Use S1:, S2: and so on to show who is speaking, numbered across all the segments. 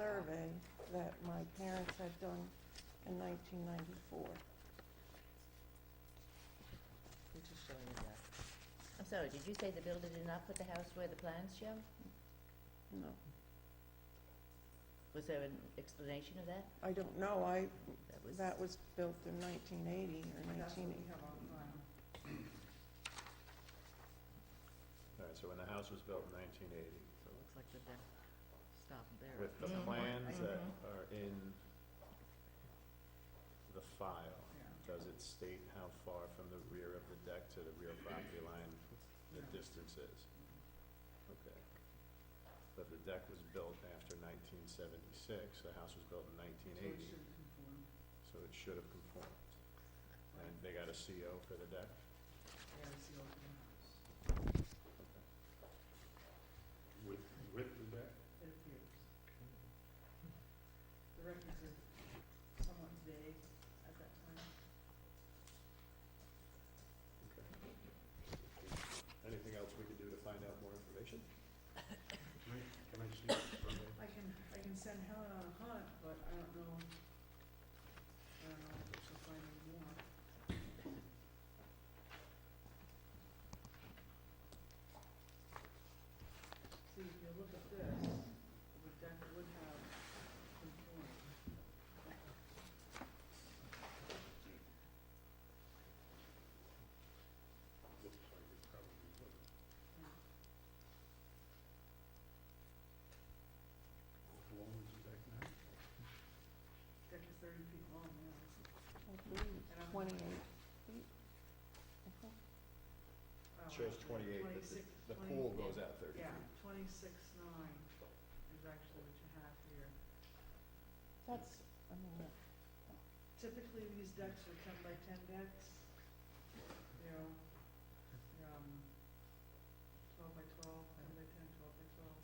S1: survey that my parents had done in 1994.
S2: We're just showing you that. I'm sorry, did you say the builder did not put the house where the plans show?
S1: No,
S2: Was there an explanation of that?
S1: I don't know, I,
S2: That was,
S1: that was built in 1980 or 19...
S3: All right, so when the house was built in nineteen eighty, so
S2: looks like we've got, stop there.
S3: with the
S2: Mhm.
S3: plans that
S2: Mhm.
S3: are in the file, does it state how far from the rear of the deck to the rear property line the distance is? Okay. But the deck was built after nineteen seventy-six, the house was built in nineteen eighty, so it should have conformed. And they got a CO for the deck?
S4: With, with the deck?
S5: The records are somewhat vague at that time.
S3: Anything else we could do to find out more information?
S4: Can I, can I see the survey?
S5: I can, I can send Helen on a hunt, but I don't know, I don't know if she'll find any more. See, if you look at this, the deck would have conformed.
S4: Looks like it probably would. How long is the deck now?
S5: Deck is thirty feet long, yeah, it's,
S1: I believe
S5: and I'm.
S1: 28 feet. Uh-huh.
S5: oh,
S3: Shows
S5: actually,
S3: twenty-eight,
S5: 26
S3: but the, the
S5: 20
S3: pool goes out thirty feet.
S5: Yeah, twenty-six nine is actually what you have here.
S1: That's, I mean, that-
S5: Typically, these decks are ten by ten decks, you know, um, twelve by twelve, ten by ten, twelve by twelve.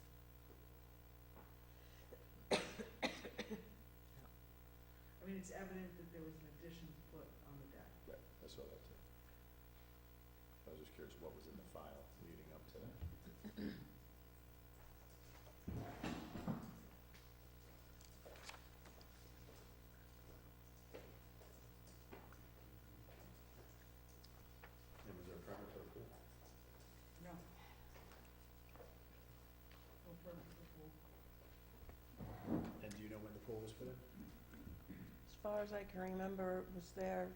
S5: I mean, it's evident that there was an addition put on the deck.
S3: Right, I saw that too. I was just curious what was in the file leading up to that. And was there a permit for the pool?
S5: No. No permit for pool.
S3: And do you know when the pool was put in?
S1: As far as I can remember, it was there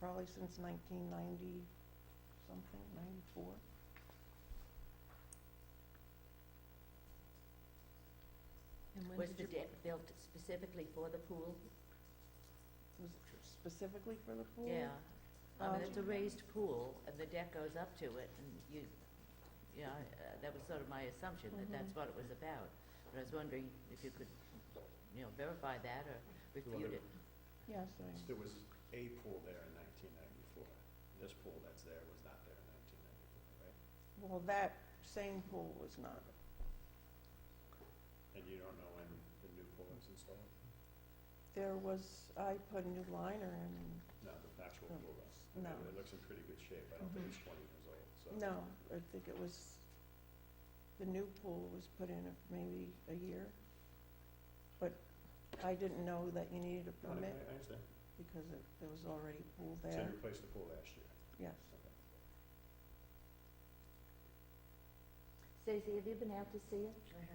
S1: probably since 1990 something, 94.
S2: Was the deck built specifically for the pool?
S1: Was specifically for the pool?
S2: Yeah. I
S1: Um,
S2: mean, it's a raised pool, and the deck goes up to it, and you, you know, uh, that was sort of my assumption, that that's
S1: Mhm.
S2: what it was about. But I was wondering if you could, you know, verify that or refute
S3: wonder-
S2: it.
S1: Yes, I-
S3: There was a pool there in nineteen ninety-four. This pool that's there was not there in nineteen ninety-four, right?
S1: well, that same pool was not.
S3: And you don't know when the new pool was installed?
S1: There was, I put a new liner in,
S3: No, the actual
S1: No.
S3: pool house. I
S1: Hmm.
S3: mean,
S1: No. Mm-hmm.
S3: It looks in pretty good shape, I don't think it's twenty years old, so.
S1: no, I think it was, the new pool was put in a- maybe a year. But I didn't know that you needed a
S3: No, I,
S1: permit
S3: I understand,
S1: because it- there was already a pool
S3: so you
S1: there,
S3: replaced the pool last year,
S1: yes.
S3: okay.
S2: Stacy, have you been out to see it?
S5: I have.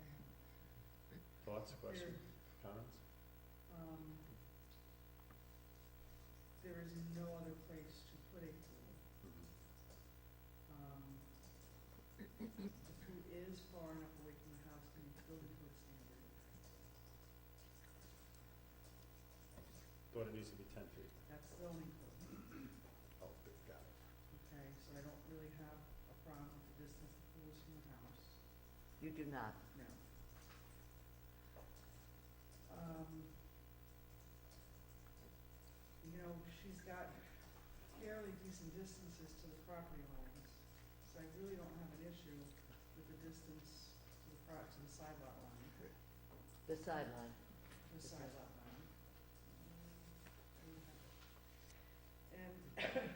S5: I have.
S3: Thoughts, questions, comments?
S5: um, there is no other place to put a pool. Um, the pool is far enough away from the house to meet building code standard.
S3: Thought it needs to be ten feet.
S5: That's zoning code,
S3: Oh, good, got it.
S5: okay, so I don't really have a problem with the distance the pool is from the house,
S2: You do not.
S5: no. Um, you know, she's got fairly decent distances to the property lines, so I really don't have an issue with the distance to the pro, to the side lot line,
S2: The sideline.
S5: the side lot line. Um, I don't have it. And um,